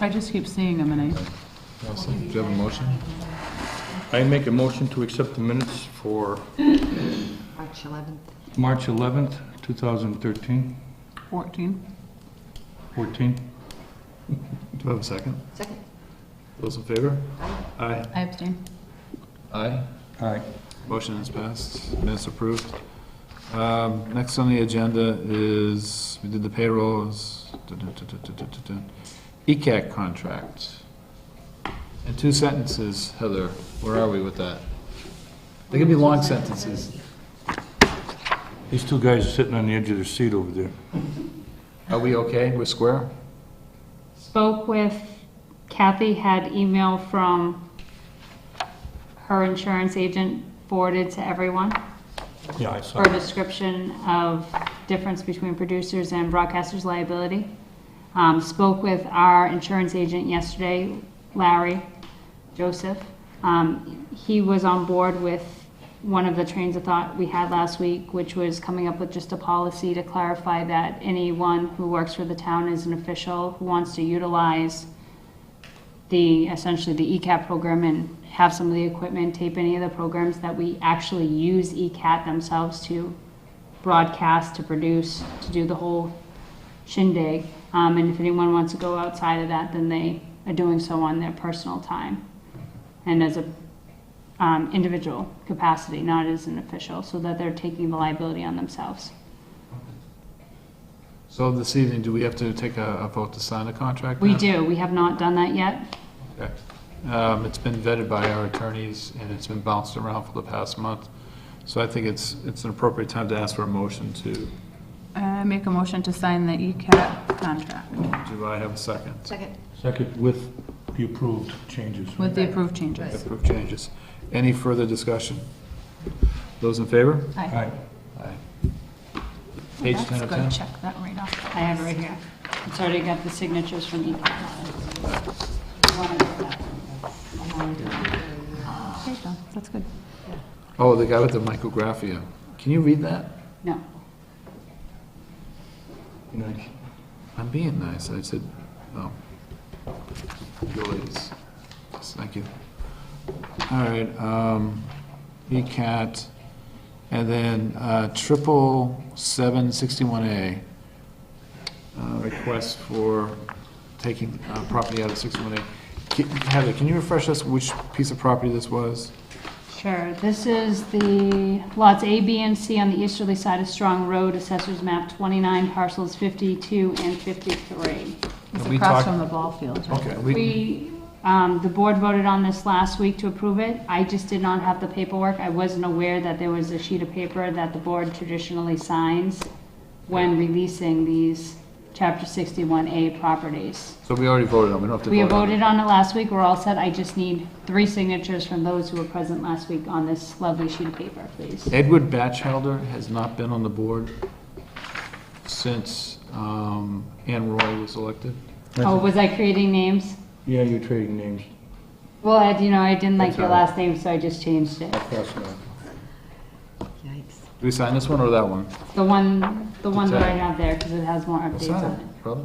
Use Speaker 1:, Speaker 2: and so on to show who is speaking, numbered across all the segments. Speaker 1: I just keep seeing them and I,
Speaker 2: Do you have a motion?
Speaker 3: I make a motion to accept the minutes for
Speaker 4: March 11th.
Speaker 3: March 11th, 2013,
Speaker 1: 14.
Speaker 3: 14.
Speaker 2: Do I have a second?
Speaker 4: Second.
Speaker 2: Those in favor? Aye.
Speaker 1: I abstain.
Speaker 2: Aye.
Speaker 3: Aye.
Speaker 2: Motion is passed, minutes approved. Um, Next on the agenda is, we did the payrolls, duh, duh, duh, duh, duh, duh, duh. ECAC contract. In two sentences, Heather, where are we with that? They can be long sentences.
Speaker 3: These two guys are sitting on the edge of their seat over there.
Speaker 2: Are we okay? We're square?
Speaker 5: spoke with Kathy, had email from her insurance agent forwarded to everyone
Speaker 3: Yeah, I saw.
Speaker 5: for a description of difference between producers and broadcasters liability. Um, spoke with our insurance agent yesterday, Larry Joseph. Um, he was on board with one of the trains of thought we had last week, which was coming up with just a policy to clarify that anyone who works for the town is an official who wants to utilize the, essentially the E ECAT program and have some of the equipment, tape any of the programs that we actually use E ECAT themselves to broadcast, to produce, to do the whole shindig. Um, and if anyone wants to go outside of that, then they are doing so on their personal time and as a um, individual capacity, not as an official, so that they're taking the liability on themselves.
Speaker 2: So this evening, do we have to take a a vote to sign the contract?
Speaker 5: We
Speaker 2: now?
Speaker 5: do, we have not done that yet.
Speaker 2: Okay. Um, It's been vetted by our attorneys, and it's been bounced around for the past month. So I think it's, it's an appropriate time to ask for a motion to, do
Speaker 1: I Uh, make a motion to sign the E ECAT contract
Speaker 2: I uh, have a second?
Speaker 4: Second.
Speaker 3: Second, with the approved changes.
Speaker 1: with the approved changes.
Speaker 2: Approve changes. Any further discussion? Those in favor?
Speaker 3: Aye.
Speaker 2: Aye. Page 10 of
Speaker 1: That's good,
Speaker 2: 10.
Speaker 1: check that right off.
Speaker 5: I have it right here. It's already got the signatures from E each.
Speaker 1: Okay, John, that's good.
Speaker 2: Oh, the guy with the micrographia. Can you read that?
Speaker 5: No,
Speaker 3: Nice.
Speaker 2: I'm being nice. I said, oh. Go ladies. Yes, Thank you. All right, um, ECAT, and then, uh, triple seven sixty-one A. Uh, request for taking, uh, property out of sixty-one A. Heather, can you refresh us which piece of property this was?
Speaker 5: sure. This is the lots A, B, and C on the easterly side of Strong Road, Assessors Map 29, parcels 52 and 53.
Speaker 1: It's
Speaker 2: We
Speaker 1: across
Speaker 2: talked-
Speaker 1: from the ball field, right?
Speaker 2: Okay, we,
Speaker 5: We, um, the board voted on this last week to approve it. I just did not have the paperwork. I wasn't aware that there was a sheet of paper that the board traditionally signs when releasing these Chapter 61A properties.
Speaker 2: so we already voted on, it. we don't have to vote on.
Speaker 5: We
Speaker 2: it.
Speaker 5: voted on it last week, we're all set, I just need three signatures from those who were present last week on this lovely sheet of paper, please.
Speaker 2: Edward Batchelder has not been on the board since um, Ann Roy was elected.
Speaker 5: Oh, was I creating names?
Speaker 3: Yeah, you're trading names.
Speaker 5: Well, Ed, you know, I didn't like
Speaker 3: That's
Speaker 5: your
Speaker 3: all right.
Speaker 5: last name, so I just changed it.
Speaker 3: I'll pass it on.
Speaker 4: Yikes.
Speaker 2: Do we sign this one or that one?
Speaker 5: The one, the one that I
Speaker 2: Okay.
Speaker 5: have there, because it has more
Speaker 2: We'll
Speaker 5: updates
Speaker 2: sign
Speaker 5: on
Speaker 2: it,
Speaker 5: it.
Speaker 2: brother.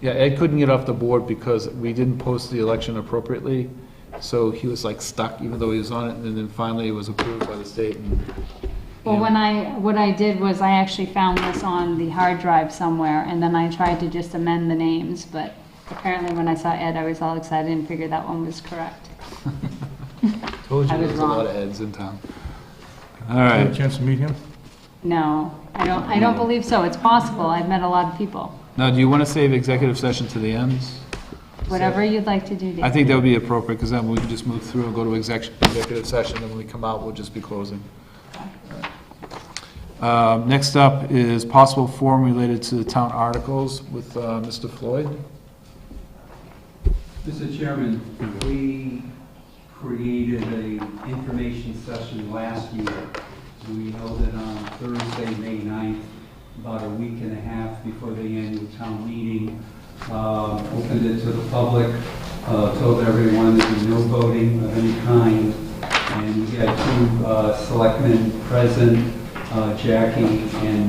Speaker 2: Yeah, Ed couldn't get off the board because we didn't post the election appropriately, so he was like stuck, even though he was on it, and then finally it was approved by the state. and-
Speaker 5: Well,
Speaker 2: Yeah.
Speaker 5: when I, what I did was I actually found this on the hard drive somewhere, and then I tried to just amend the names, but apparently when I saw Ed, I was all excited and figured that one was correct.
Speaker 2: Told you
Speaker 5: I was
Speaker 2: there was a lot
Speaker 5: wrong.
Speaker 2: of Eds in town. All
Speaker 3: Had a
Speaker 2: right,
Speaker 3: chance to meet him?
Speaker 5: No, I don't, I don't believe so, it's possible, I've met a lot of people.
Speaker 2: now, do you want to save executive session to the end?
Speaker 5: Whatever you'd like to do,
Speaker 2: I
Speaker 5: Dave.
Speaker 2: think that would be appropriate, because then we can just move through and go to exec- executive session, and when we come out, we'll just be closing. Uh, Next up is possible form related to the town articles with uh, Mr. Floyd.
Speaker 6: Mr. Chairman, we created a information session last year. We held it on Thursday, May 9th, about a week and a half before the annual town meeting. Um, Opened it to the public, uh, told everyone there'd be no voting of any kind. And we had two uh, selectmen present, uh, Jackie and